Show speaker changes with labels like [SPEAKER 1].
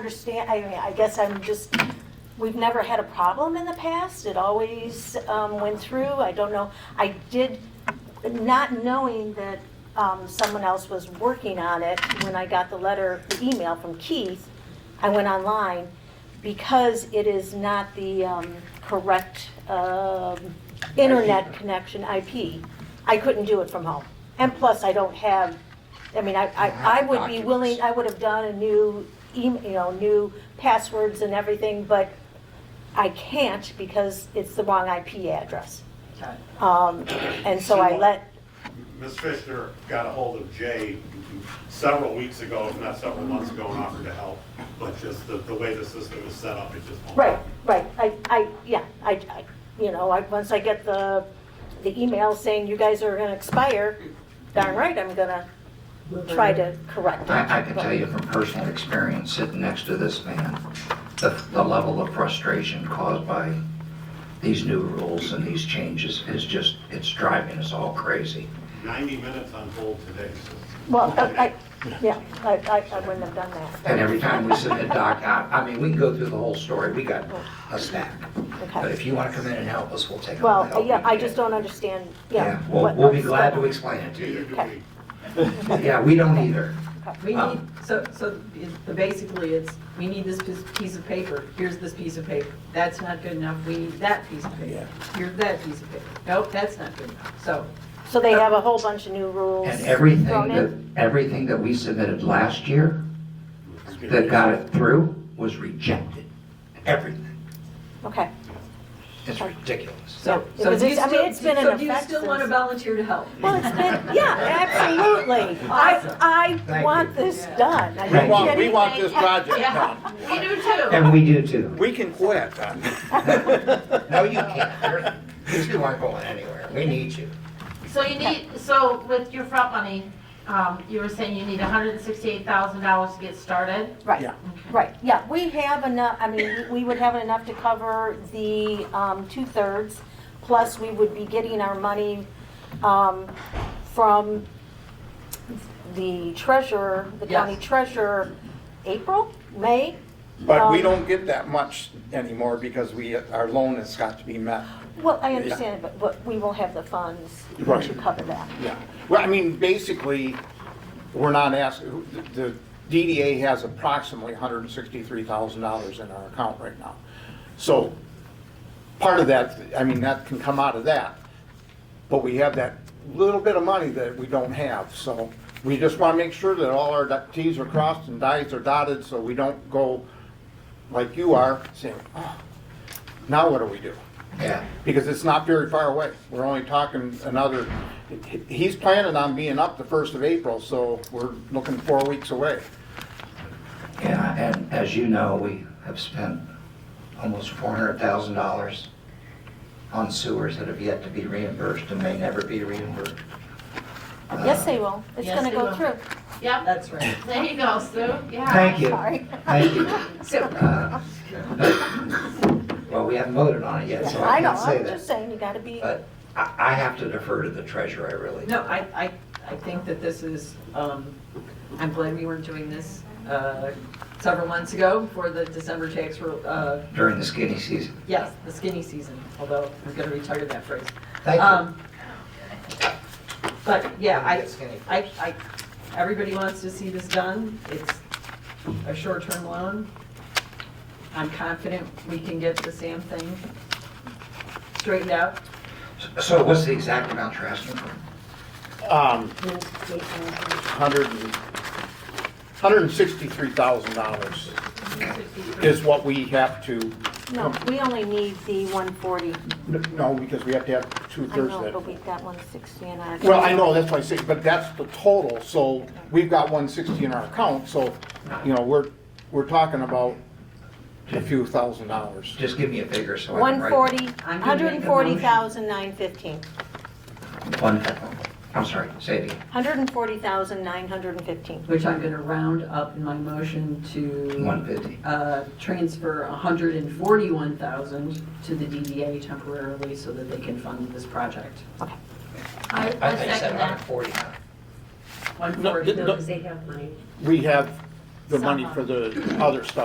[SPEAKER 1] Understand, I mean, I guess I'm just, we've never had a problem in the past. It always um, went through. I don't know. I did, not knowing that um, someone else was working on it, when I got the letter, the email from Keith, I went online because it is not the um, correct um, internet connection IP. I couldn't do it from home. And plus, I don't have, I mean, I, I I would be willing, I would have done a new email, you know, new passwords and everything, but I can't because it's the wrong IP address.
[SPEAKER 2] Okay.
[SPEAKER 1] Um, and so I let,
[SPEAKER 3] Ms. Fishner got a hold of Jay several weeks ago, if not several months ago, and offered to help. But just the, the way the system is set up, it just won't.
[SPEAKER 1] right, right, I, I, yeah, I, I- you know, I, once I get the, the email saying you guys are gonna expire, darn right, I'm gonna try to correct it.
[SPEAKER 4] I, I can tell you from personal experience, sitting next to this man, the, the level of frustration caused by these new rules and these changes is just, it's driving us all crazy.
[SPEAKER 3] Ninety minutes on hold today, so.
[SPEAKER 1] Well, I, I- yeah, I, I, I wouldn't have done that,
[SPEAKER 4] And every time we submit doc, I, I mean, we can go through the whole story, we got a stack. But
[SPEAKER 1] okay.
[SPEAKER 4] if you wanna come in and help us, we'll take all the help
[SPEAKER 1] Well,
[SPEAKER 4] we
[SPEAKER 1] yeah,
[SPEAKER 4] can
[SPEAKER 1] I
[SPEAKER 4] get.
[SPEAKER 1] just don't understand, yeah.
[SPEAKER 4] Yeah, we'll,
[SPEAKER 1] what-
[SPEAKER 4] we'll be
[SPEAKER 1] what's
[SPEAKER 4] glad to
[SPEAKER 1] going on.
[SPEAKER 4] explain it to
[SPEAKER 3] Neither
[SPEAKER 4] you.
[SPEAKER 3] do
[SPEAKER 1] Okay.
[SPEAKER 3] we.
[SPEAKER 4] Yeah, we don't either.
[SPEAKER 2] We
[SPEAKER 4] Uh,
[SPEAKER 2] need, so, so the- basically it's, we need this piece- piece of paper, here's this piece of paper. That's not good enough, we need that piece of paper. Here's that piece of paper. Nope, that's not good enough. So,
[SPEAKER 1] So they have a whole bunch of new rules.
[SPEAKER 4] And everything
[SPEAKER 1] thrown in.
[SPEAKER 4] that, everything that we submitted last year that got it through was rejected. Everything.
[SPEAKER 1] Okay,
[SPEAKER 4] It's ridiculous.
[SPEAKER 2] so,
[SPEAKER 1] Yeah,
[SPEAKER 2] so
[SPEAKER 1] because
[SPEAKER 2] do you
[SPEAKER 1] it's- I
[SPEAKER 2] still,
[SPEAKER 1] mean, it's been
[SPEAKER 2] so
[SPEAKER 1] in
[SPEAKER 2] do you
[SPEAKER 1] effect
[SPEAKER 2] still want to
[SPEAKER 1] since-
[SPEAKER 2] volunteer to help?
[SPEAKER 1] well, it's been, yeah, absolutely. I, I
[SPEAKER 4] Thank
[SPEAKER 1] want
[SPEAKER 4] you.
[SPEAKER 1] this
[SPEAKER 2] Yeah.
[SPEAKER 1] done. I
[SPEAKER 5] We
[SPEAKER 1] don't
[SPEAKER 5] want,
[SPEAKER 1] get
[SPEAKER 5] we want
[SPEAKER 1] anything-
[SPEAKER 5] this project done.
[SPEAKER 2] Yeah, we do too.
[SPEAKER 4] And we do too.
[SPEAKER 5] We can quit.
[SPEAKER 4] No, you can't. You're- These two aren't going anywhere. We need you.
[SPEAKER 6] So you need, so with your front money, um, you were saying you need hundred and sixty-eight thousand dollars to get started?
[SPEAKER 1] Right,
[SPEAKER 5] Yeah.
[SPEAKER 1] right, yeah, we have enough, I mean, we we would have enough to cover the um, two-thirds, plus we would be getting our money um, from the treasurer, the county
[SPEAKER 2] Yes.
[SPEAKER 1] treasurer, April, May? Um,
[SPEAKER 5] But we don't get that much anymore because we, our loan has got to be met.
[SPEAKER 1] Well, I understand, but, but we will have the funds to
[SPEAKER 5] Right.
[SPEAKER 1] cover that.
[SPEAKER 5] Yeah. Well, I mean, basically, we're not asking, the DDA has approximately $163,000 in our account right now. So part of that, I mean, that can come out of that. But we have that little bit of money that we don't have, so we just want to make sure that all our Ts are crossed and Is are dotted, so we don't go like you are, saying, oh, now what do we do?
[SPEAKER 4] Yeah.
[SPEAKER 5] because it's not very far away. We're only talking another, he- he's planning on being up the first of April, so we're looking four weeks away.
[SPEAKER 4] Yeah, and as you know, we have spent almost four hundred thousand dollars on sewers that have yet to be reimbursed and may never be reimbursed.
[SPEAKER 1] Yes, they will, it's
[SPEAKER 6] Yes,
[SPEAKER 1] gonna
[SPEAKER 6] they
[SPEAKER 1] go
[SPEAKER 6] will.
[SPEAKER 1] through.
[SPEAKER 6] Yep,
[SPEAKER 2] That's right.
[SPEAKER 6] there you go, Sue, yeah.
[SPEAKER 4] Thank you.
[SPEAKER 1] Sorry.
[SPEAKER 4] Thank you.
[SPEAKER 2] So,
[SPEAKER 4] Uh, Well, we haven't voted on it yet, so I
[SPEAKER 1] I know,
[SPEAKER 4] can't say
[SPEAKER 1] I'm
[SPEAKER 4] that.
[SPEAKER 1] just saying, you gotta be,
[SPEAKER 4] But I, I have to defer to the treasurer, I really.
[SPEAKER 2] No, I, I, I think that this is, um, I'm glad we weren't doing this, uh, several months ago for the December tax, ro- uh,
[SPEAKER 4] During the skinny season.
[SPEAKER 2] yes, the skinny season, although I'm gonna retire that phrase.
[SPEAKER 4] Thank you.
[SPEAKER 2] Um, But, yeah, I,
[SPEAKER 4] Skinny.
[SPEAKER 2] I, I, everybody wants to see this done. It's a short-term loan. I'm confident we can get the Sam thing straightened out.
[SPEAKER 4] So what's the exact amount you're asking for?
[SPEAKER 5] Um, hundred and, hundred and sixty-three thousand dollars is what we have to,
[SPEAKER 1] no, we only need the one forty.
[SPEAKER 5] no, because we have to have
[SPEAKER 1] I
[SPEAKER 5] two-thirds
[SPEAKER 1] know, but
[SPEAKER 5] of that.
[SPEAKER 1] we've got one sixty and I.
[SPEAKER 5] Well, I know, that's why I say, but that's the total, so we've got one sixty in our account, so, you know, we're, we're talking about a few thousand dollars.
[SPEAKER 4] Just give me a figure so I can
[SPEAKER 1] One
[SPEAKER 4] write.
[SPEAKER 1] forty,
[SPEAKER 2] I'm
[SPEAKER 1] one
[SPEAKER 2] gonna
[SPEAKER 1] hundred
[SPEAKER 2] make a
[SPEAKER 1] and
[SPEAKER 2] motion.
[SPEAKER 1] forty thousand nine fifteen.
[SPEAKER 4] One, I'm sorry, say it again.
[SPEAKER 1] One hundred and forty thousand nine hundred and fifteen.
[SPEAKER 2] which I'm going to round up in my motion to
[SPEAKER 4] 150.
[SPEAKER 2] uh, transfer 141,000 to the DDA temporarily so that they can fund this project.
[SPEAKER 6] I,
[SPEAKER 4] I
[SPEAKER 6] I
[SPEAKER 4] think you said
[SPEAKER 6] second that.
[SPEAKER 4] 149.
[SPEAKER 5] No,
[SPEAKER 2] 140.
[SPEAKER 5] no. We have the money for the other stuff.